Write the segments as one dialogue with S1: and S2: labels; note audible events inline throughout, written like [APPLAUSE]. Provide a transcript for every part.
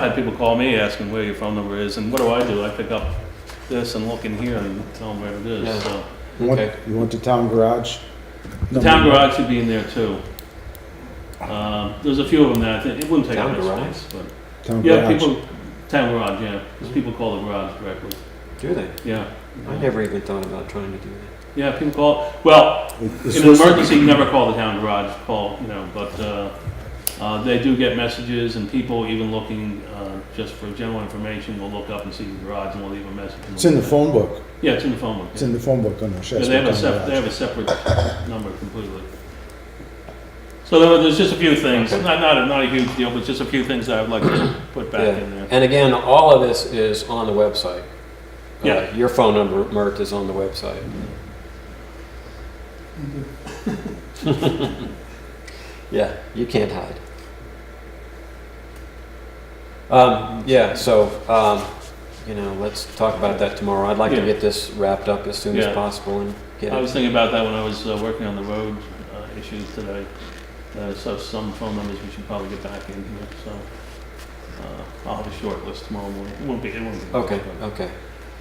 S1: I had people call me asking where your phone number is, and what do I do? I pick up this and look in here and tell them where it
S2: Yeah.
S1: is, so.
S3: You want,
S2: Okay.
S3: you want the town garage?
S1: The town garage should be in there too. Um, There's a few of them that I think, it wouldn't take up
S2: Town
S1: much
S2: garage?
S1: space, but,
S3: Town
S1: yeah,
S3: garage.
S1: people, town garage, yeah, 'cause people call the garage directly,
S2: Do they?
S1: yeah.
S2: I never even thought about trying to do that.
S1: Yeah, people call, well,
S3: It- it's
S1: In an
S3: supposed to-
S1: emergency, you never call the town garage, call, you know, but, uh, uh, they do get messages and people even looking, uh, just for general information, will look up and see the garage and will leave a message. and
S3: It's in the
S1: we'll-
S3: phone book.
S1: Yeah, it's in the phone book.
S3: It's
S1: yeah.
S3: in the phone book on the
S1: Yeah,
S3: Shasta
S1: They have a
S3: Town
S1: sep, they
S3: Garage.
S1: have a separate number completely. So there were, there's just a few things,
S2: Okay.
S1: not, not, a- not a huge deal, but just a few things that I'd like to put back in there.
S2: And again, all of this is on the website. Uh,
S1: Yeah.
S2: Your phone number, Mert, is on
S1: [LAUGHS]
S2: the website. Yeah, you can't hide. Um, yeah, so, um, you know, let's talk about that tomorrow. I'd like to
S1: Yeah.
S2: get this wrapped up as soon as
S1: Yeah.
S2: possible and get
S1: I
S2: it.
S1: was thinking about that when I was uh, working on the road uh, issues today. Uh, So some phone numbers we should probably get back in here, so uh, I'll have a short list tomorrow morning. It won't be, it won't be.
S2: Okay, okay.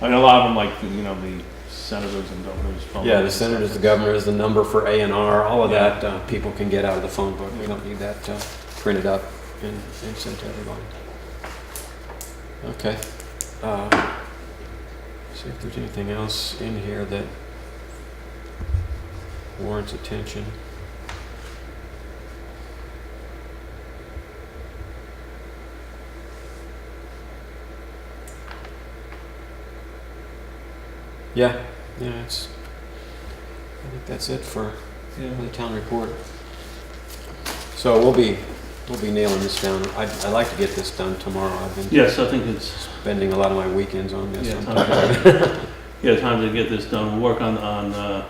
S1: I mean, a lot of them, like, you know, the senators and governors. phone
S2: Yeah, the
S1: numbers and
S2: senators, the
S1: stuff.
S2: governors, the number for A and R, all of
S1: Oh, Yeah.
S2: that, uh, people can get out of the phone book. We don't need that uh, printed up and and sent to everybody. Okay. Uh, See if there's anything else in here that warrants attention. Yeah, yeah, it's, I think that's it for
S1: Yeah.
S2: the town report. So we'll be, we'll be nailing this down. I'd, I'd like to get this done tomorrow. I've been
S1: Yes, I think it's,
S2: spending a lot of my weekends on this.
S1: yeah,
S2: I'm
S1: time to- [LAUGHS] yeah, time to get this done. We'll work on, on, uh,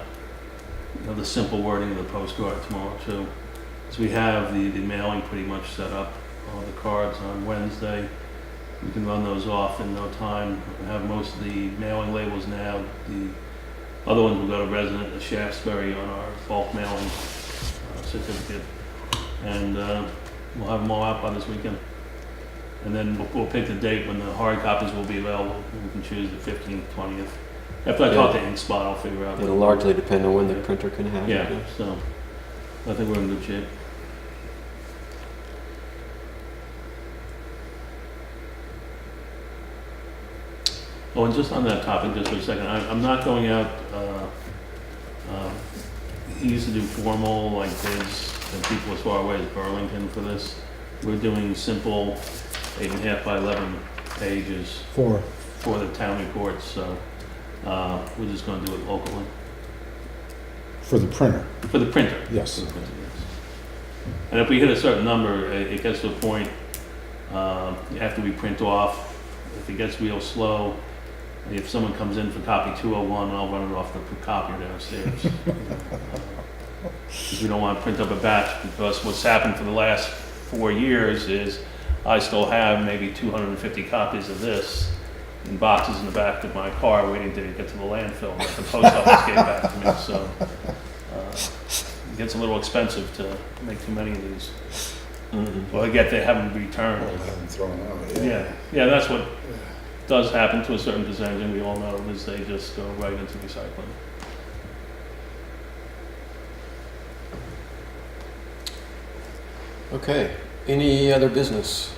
S1: you know, the simple wording of the postcard tomorrow too. So we have the, the mailing pretty much set up, all the cards on Wednesday. We can run those off in no time. We have most of the mailing labels now. The other ones will go to resident of Shaftesbury on our bulk mailing uh, certificate. And uh, we'll have them all out by this weekend. And then we'll, we'll pick the date when the hard copies will be available. We can choose the 15th, 20th. After I talk to InkSpot, I'll figure out.
S2: It'll
S1: what-
S2: largely depend on when the printer can have it.
S1: yeah, so I think we're in good shape. Oh, and just on that topic, just for a second, I, I'm not going out, uh, uh, he used to do formal, like bids, and people as far away as Burlington for this. We're doing simple eight and a half by eleven pages
S3: Four.
S1: for the town reports, so, uh, we're just gonna do it locally,
S3: For the printer,
S1: for the printer.
S3: yes.
S1: And if we hit a certain number, i- it gets to a point, um, after we print off, if it gets real slow, if someone comes in for copy 201, I'll run it off the copier downstairs. Because we don't want to print up a batch, because what's happened for the last four years is I still have maybe 250 copies of this in boxes in the back of my car waiting to get to the landfill that the post office gave back to me, so. uh, it gets a little expensive to make too many of these.
S2: Mhm.
S1: Well, I get they haven't returned. Yeah, yeah, that's what does happen to a certain percentage, and we all know, is they just go right into recycling.
S2: Okay, any other business?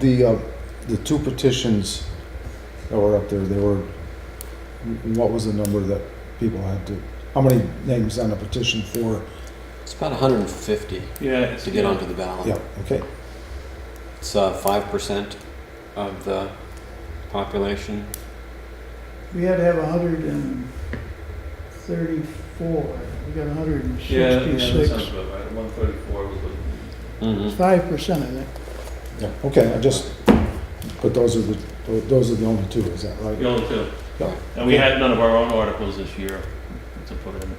S3: The, uh, the two petitions that were up there, they were, what was the number that people had to, how many names on a petition for?
S2: It's about 150
S1: Yeah. it's-
S2: to get onto the ballot.
S3: Yeah, okay.
S2: It's uh, 5% of the population.
S4: We had to have hundred and thirty-four, we got hundred and
S1: Yeah, yeah, that sounds
S4: sixty-six.
S1: about right, one thirty-four was the. Mm-hmm.
S2: Mhm.
S4: Five percent, I think.
S3: Yeah, okay, I just, but those are the, those are the only two, is that right?
S1: The only two.
S3: Yeah.
S1: And we had none of our own articles this year to put in.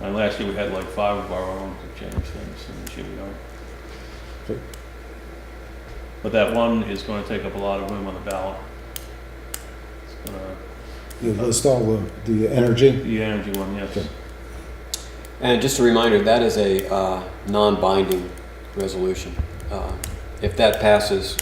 S1: And last year, we had like five of our own to change things, and this year we don't.
S3: Okay.
S1: But that one is gonna take up a lot of room on the ballot. It's gonna,
S3: You list all the, the energy?
S1: the energy one, yes.
S3: Okay.
S2: And just a reminder, that is a uh, non-binding resolution. Uh, if that passes,